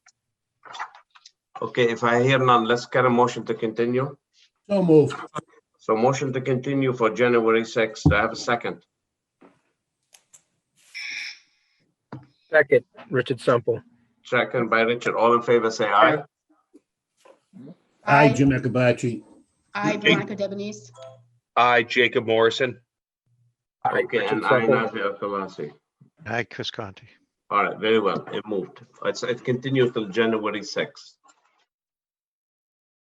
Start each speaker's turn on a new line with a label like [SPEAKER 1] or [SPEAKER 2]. [SPEAKER 1] Okay, if I hear none, let's get a motion to continue.
[SPEAKER 2] So moved.
[SPEAKER 1] So motion to continue for January 6th. Do I have a second?
[SPEAKER 3] Second, Richard Sample.
[SPEAKER 1] Second by Richard. All in favor, say aye.
[SPEAKER 2] Aye,
[SPEAKER 4] I,
[SPEAKER 2] Jim Akabachi.
[SPEAKER 4] I, Veronica Debonese.
[SPEAKER 5] Aye, Jacob Morrison.
[SPEAKER 1] Okay, and aye, Nazir Alkalafi.
[SPEAKER 6] Hi, Chris Conti.
[SPEAKER 1] All right, very well. It moved. It's, it continues till January 6th.